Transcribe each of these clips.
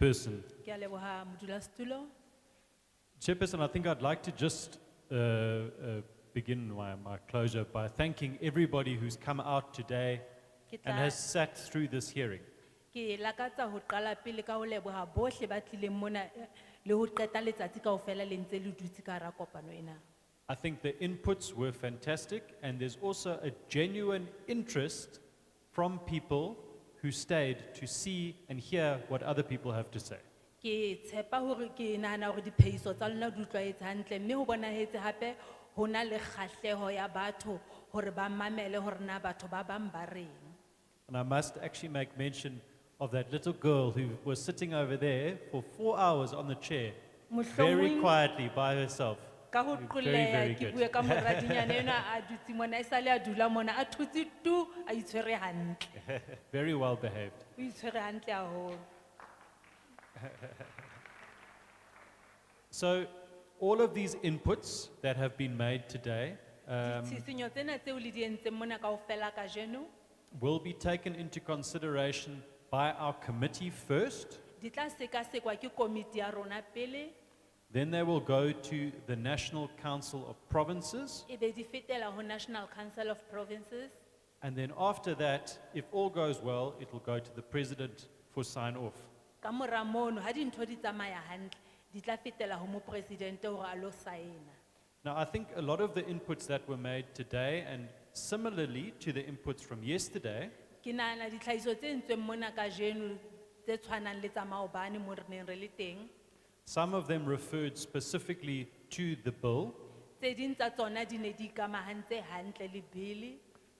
Chairperson. Ke a leboha modulasetulo. Chairperson, I think I'd like to just uh, uh, begin my, my closure by thanking everybody who's come out today Ke and tla- has sat through this hearing. Ke lakatsa ho qala pele ka ho leboha bohle ba tlileng mona eh, le ho qeta letsatsi kaofela le ntse le dutse ka hara kopano ena. I think the inputs were fantastic, and there's also a genuine interest from people who stayed to see and hear what other people have to say. Ke tshepa hore ke nahana hore diphehiso tsa lona di utlwaetse hantle mme ho bonahetse hape ho na le kgahleho ya batho hore ba mamele hore na batho ba bang ba reng. And I must actually make mention of that little girl who was sitting over there for four hours on the chair, very Mohlomong- quietly by herself. Ka ho Very, qolleha very ke good. bue ka moradinyana enwa a dutse mona e sale a dula mona a thutse tu a itshwere hantle. Very well behaved. O itshwere hantle haholo. So, all of these inputs that have been made today um, Tshisinyo tsena tseo le di entseng mona kaofela kajeno, will be taken into consideration by our committee first. di tla sekasekwa ke komiti ya rona pele, Then they will go to the National Council of Provinces. ebe e di fetela ho National Council of Provinces. And then after that, if all goes well, it will go to the President for sign off. Ka mora mono, ha dintho di tsamaya hantle, di tla fetela ho mopresidente hore a lo saena. Now, I think a lot of the inputs that were made today, and similarly to the inputs from yesterday, Ke nahana ditlhahiso tse entsweng mona kajeno tse tshwanang le tsa maobane moo re neng re le teng. some of them referred specifically to the bill, Tse ding tsa tsona di ne di ikamahantse hantle le bili.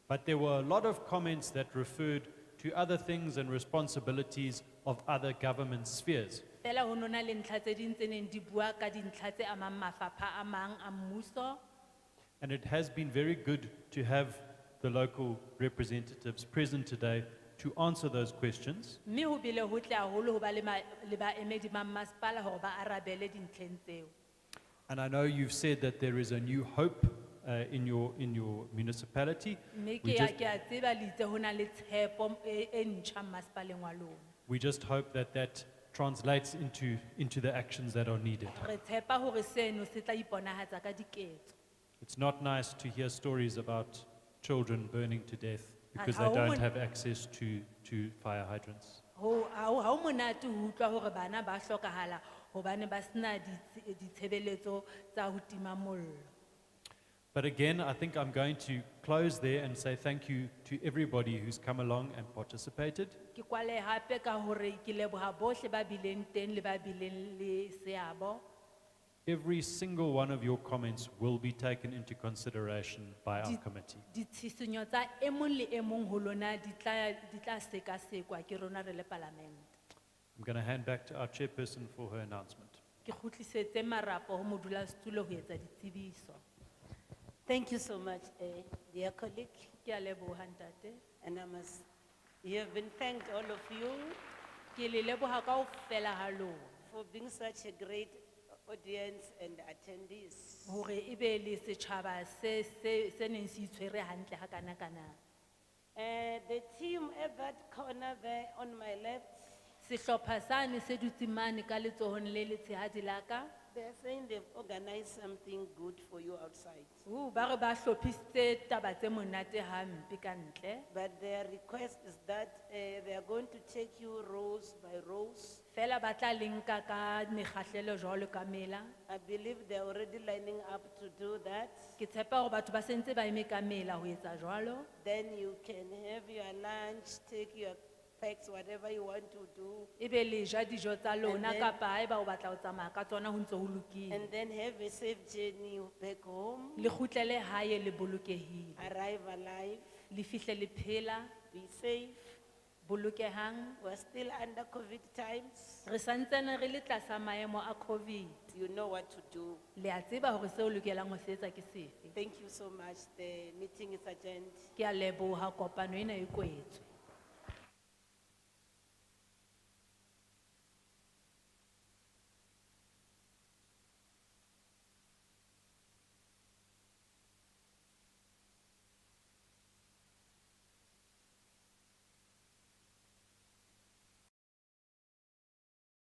but there were a lot of comments that referred to other things and responsibilities of other government spheres. Fela ho nona le ntlha tse ding tse neng di bua ka dintlha tse amang mafapha a mang a mmuso. And it has been very good to have the local representatives present today to answer those questions. mme ho bile ho tle haholo ho ba le ma- le baemedi ba mmasepala hore ba arabele dintlheng tseo And I know you've said that there is a new hope uh, in, your, in your municipality. mme We ke a- just, ke a tseba le itse ho na le tshepo e e ntjha mmasepaleng wa lona we just hope that that translates into, into the actions that are needed. re tshepa hore seno se tla iponahatsa ka diketso It's not nice to hear stories about children burning to death because they how don't would- have access to, to fire hydrants. ho ha ho- ha ho monate ho utlwa hore bana ba hlokahala hobane ba sena ditse- ditshebeletso tsa ho tima mollo But again, I think I'm going to close there and say thank you to everybody who's come along and participated. ke kwale hape ka hore ke leboha bohle ba bileng teng le ba bileng le seabo Every single one of your comments will be taken into consideration by our Did- committee. ditshisinyo tsa e mong le e mong ho lona di tla, di tla sekasekwa ke rona re le palamente. I'm going to hand back to our chairperson for her announcement. Ke kgutlisetse marapo ho modulasetulo ho etsa ditsebiso. Thank you so much, eh, dear colleague, Ke a leboha ntate. and I must, you have been thanked, all of you, Ke le leboha kaofela ha lona for being such a great audience and attendees. hore ebe le setjhaba se se se neng se itshwere hantle ha kana kana. Eh, the team at that corner there on my left, Sehlopha sane se dutse mane ka letsohong le letshehadi la ka. they're saying they've organized something good for you outside, Uh, ba re ba hlophisitse taba tse monate hampe ka ntle. but their request is that eh, they are going to take you rows by rows. Fela ba tla le nka ka mekgahlelo jwalo ka mela. I believe they're already lining up to do that. Ke tshepa hore batho ba sentse ba eme ka mela ho etsa jwalo. Then you can have your lunch, take your packs, whatever you want to do. Ebe E le ja dijo tsa lona And then- kapa haeba o batla ho tsamaya ka tsona ho ntso ho lokile. And then have a safe journey back home, Le kgutlele hae le bolokehile. arrive alive, Le fihle le phela, be safe. bolokehang. We're still under COVID times. Re santsane re le tlasa maemo a COVID. You know what to do. Le a tseba hore seo o lokelang ho se etsa ke sefe. Thank you so much. The meeting is adjourned. Ke a leboha kopano ena e kwetswe.